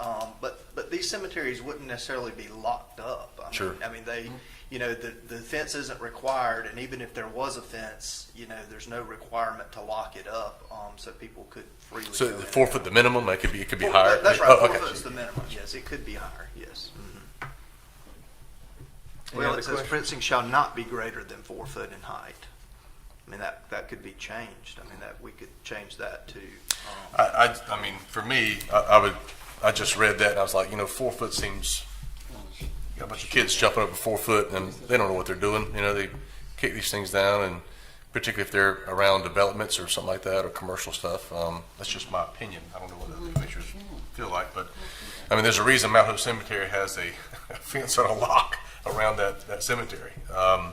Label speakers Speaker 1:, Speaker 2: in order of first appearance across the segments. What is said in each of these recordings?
Speaker 1: um, these cemeteries wouldn't necessarily be locked up. I
Speaker 2: Sure. Mm-hmm.
Speaker 1: Mean, I mean, they, you know, the, the fence isn't required, and even if there was a fence, you know, there's no requirement to lock it up, um, so people could freely.
Speaker 2: So
Speaker 1: go
Speaker 2: the
Speaker 1: in
Speaker 2: four
Speaker 1: and
Speaker 2: foot,
Speaker 1: out.
Speaker 2: the minimum, that could be, it could be
Speaker 1: Four-
Speaker 2: higher.
Speaker 1: That's
Speaker 2: Oh,
Speaker 1: right, four
Speaker 2: okay.
Speaker 1: foot's the minimum, yes, it could be higher, yes.
Speaker 3: Any
Speaker 1: Well,
Speaker 3: other
Speaker 1: it says
Speaker 3: questions?
Speaker 1: fencing shall not be greater than four foot in height. I mean, that, that could be changed, I mean, that, we could change that to, um,
Speaker 2: I, I, I mean, for me, I, I would, I just read that and I was like, you know, four foot seems, you got a bunch of kids jumping over four foot and they don't know what they're doing. You know, they kick these things down and particularly if they're around developments or something like that or commercial stuff. Um, that's just my opinion. I don't know what other commissioners feel like, but I mean, there's a reason Mount Hope Cemetery has a fence on a lock around that, that cemetery. Um,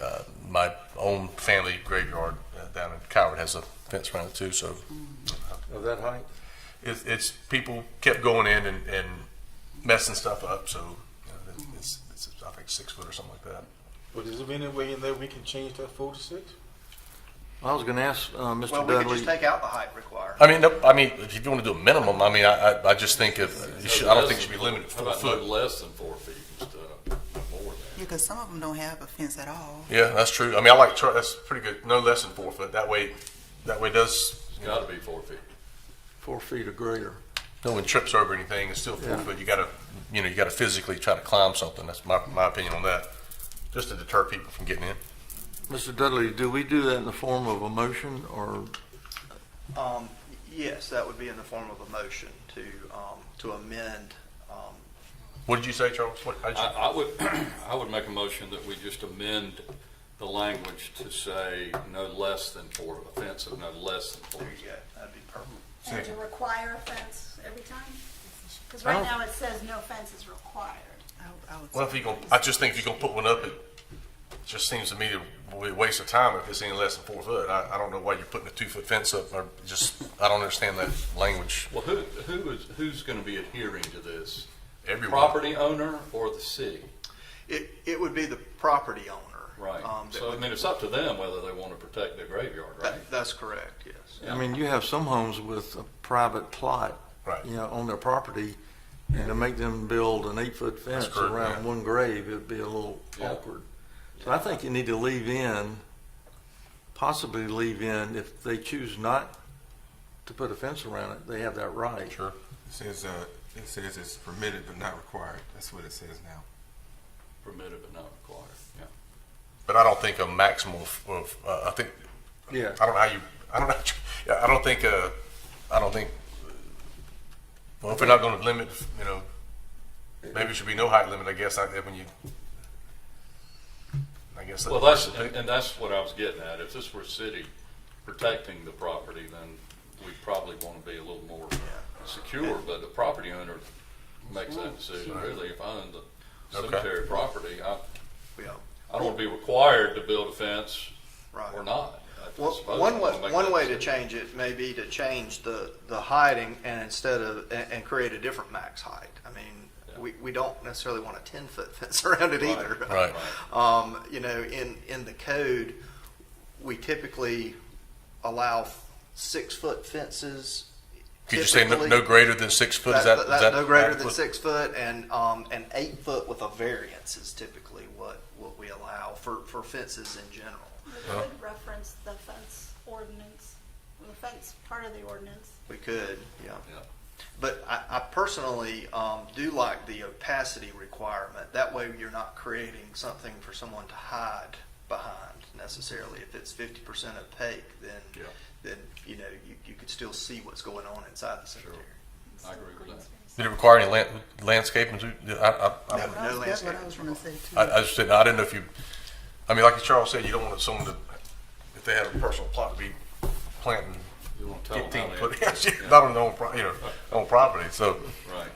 Speaker 2: uh, my own family graveyard uh, down in Coward has a fence around it too, so
Speaker 3: Of that height?
Speaker 2: it's, it's people kept going in and, and messing stuff up. So you know, it's, it's, I think six foot or something like that.
Speaker 4: But is there any way in there we can change that four to six?
Speaker 3: I was gonna ask, uh, Mr.
Speaker 1: well,
Speaker 3: Dudley.
Speaker 1: we could just take out the height requirement.
Speaker 2: I mean, no, I mean, if you want to do a minimum, I mean, I, I, I just think if you should, I don't think it should be limited to four
Speaker 5: How about no
Speaker 2: foot.
Speaker 5: less than four feet and stuff, no more than
Speaker 6: Because some of them don't have a fence at all.
Speaker 2: Yeah, that's true. I mean, I like tr- that's pretty good. No less than four foot. That way, that way does
Speaker 5: that. It's gotta be four feet.
Speaker 3: Four feet or greater.
Speaker 2: no one trips over anything. It's still four
Speaker 3: Yeah.
Speaker 2: foot. You gotta, you know, you gotta physically try to climb something. That's my my opinion on that. Just to deter people from getting in.
Speaker 3: Mr. Dudley, do we do that in the form of a motion or
Speaker 1: Um, yes, that would be in the form of a motion to, um, to amend, um,
Speaker 2: What did you say, Charles? What, how'd you-
Speaker 5: I, I would, I would make a motion that we just amend the language to say no less than four, a fence of no less than four.
Speaker 1: there you go, that'd be perfect.
Speaker 7: And to require a fence every time? Because
Speaker 3: I
Speaker 7: right
Speaker 3: don't-
Speaker 7: now it says no fence is required.
Speaker 6: I, I would
Speaker 2: Well, if
Speaker 6: say-
Speaker 2: you gonna, I just think if you're gonna put one up, it just seems to me to be a waste of time if it's any less than four foot. I, I don't know why you're putting a two foot fence up. Or just I don't understand that language.
Speaker 5: Well, who, who is, who's gonna be adhering to this?
Speaker 2: Everyone.
Speaker 5: Property owner or the city?
Speaker 1: It, it would be the property owner.
Speaker 5: Right.
Speaker 1: um, that
Speaker 5: So, I
Speaker 1: would-
Speaker 5: mean, it's up to them whether they wanna protect their graveyard, right?
Speaker 1: that- That's correct, yes.
Speaker 3: I mean, you have some homes with a private plot,
Speaker 2: Right.
Speaker 3: you know, on their property, and to make them build an eight-foot fence
Speaker 2: correct,
Speaker 3: around
Speaker 2: yeah.
Speaker 3: one grave, it'd be a little
Speaker 5: Yeah.
Speaker 3: awkward. So I think you need to leave in, possibly leave in, if they choose not to put a fence around it, they have that right.
Speaker 2: Sure.
Speaker 8: It says, uh, it says it's permitted but not required. That's what it says now.
Speaker 5: Permitted but not required, yeah.
Speaker 2: But I don't think a maximum of, of uh, I think
Speaker 3: Yeah.
Speaker 2: I don't know how you. I don't know. how you- I don't think. Uh, I don't think. Well, if we're not going to limit, you know, maybe it should be no height limit. I guess I, when you. I guess.
Speaker 5: Well, that's, and and that's what I was getting at. If this were city protecting the property, then we probably wanna be a little more secure, but the property owner makes that decision, really. If I own the
Speaker 2: Okay.
Speaker 5: cemetery property, I,
Speaker 1: Yeah,
Speaker 5: I don't wanna be required to build a fence
Speaker 1: right.
Speaker 5: or not. I
Speaker 1: Well,
Speaker 5: suppose I
Speaker 1: One
Speaker 5: wanna
Speaker 1: way,
Speaker 5: make
Speaker 1: one
Speaker 5: that
Speaker 1: way to
Speaker 5: decision.
Speaker 1: change it may be to change the, the hiding and instead of, and, and create a different max height. I mean, we, we don't necessarily want a ten-foot fence around it
Speaker 5: Right,
Speaker 1: either.
Speaker 2: right.
Speaker 1: Um, you know, in, in the code, we typically allow six-foot fences.
Speaker 2: Could you say no,
Speaker 1: typically.
Speaker 2: no greater than six foot? Is that,
Speaker 1: That,
Speaker 2: is that
Speaker 1: that, no greater than
Speaker 2: adequate?
Speaker 1: six foot and, um, and eight foot with a variance is typically what, what we allow for, for fences in general.
Speaker 7: We would reference the fence ordinance, the fence part of the ordinance.
Speaker 1: We could, yeah.
Speaker 5: Yeah.
Speaker 1: But I, I personally, um, do like the opacity requirement. That way you're not creating something for someone to hide behind necessarily. If it's fifty percent opaque, then,
Speaker 5: Yeah.
Speaker 1: then, you know, you, you could still see what's going on inside the cemetery.
Speaker 5: I agree with that.
Speaker 2: Did it require any land, landscaping? to- I, I,
Speaker 1: No.
Speaker 2: I,
Speaker 6: That's what I was- that's what I was
Speaker 1: landscaping.
Speaker 6: gonna say too.
Speaker 2: I, I just didn't. I didn't know if you. I mean, like Charles said, you don't want someone to, if they had a personal plot, to be planting
Speaker 5: You wanna tell them
Speaker 2: fifteen
Speaker 5: how
Speaker 2: foot,
Speaker 5: they- yeah.
Speaker 2: not on their own, pro- you know, on property. So,
Speaker 5: Right.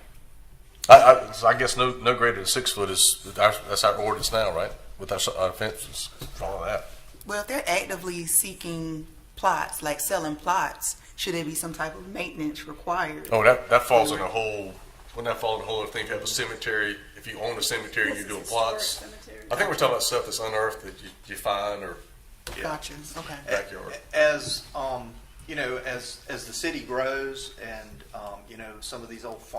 Speaker 2: I, I, so I guess no, no greater than six foot is that's that's our ordinance now, right? With our, s- our fences, follow that.
Speaker 6: Well, if they're actively seeking plots, like selling plots, should there be some type of maintenance required?
Speaker 2: Oh, that that falls in a whole. Wouldn't that fall in a whole other thing? If you have a cemetery, if you own a cemetery,
Speaker 7: This
Speaker 2: you're
Speaker 7: is
Speaker 2: doing
Speaker 7: historic
Speaker 2: plots.
Speaker 7: cemetery.
Speaker 2: I think we're talking about stuff that's unearthed that you, you find or
Speaker 6: Gotcha, okay.
Speaker 2: backyard.
Speaker 1: As, um, you know, as, as the city grows and, um, you know, some of these old farms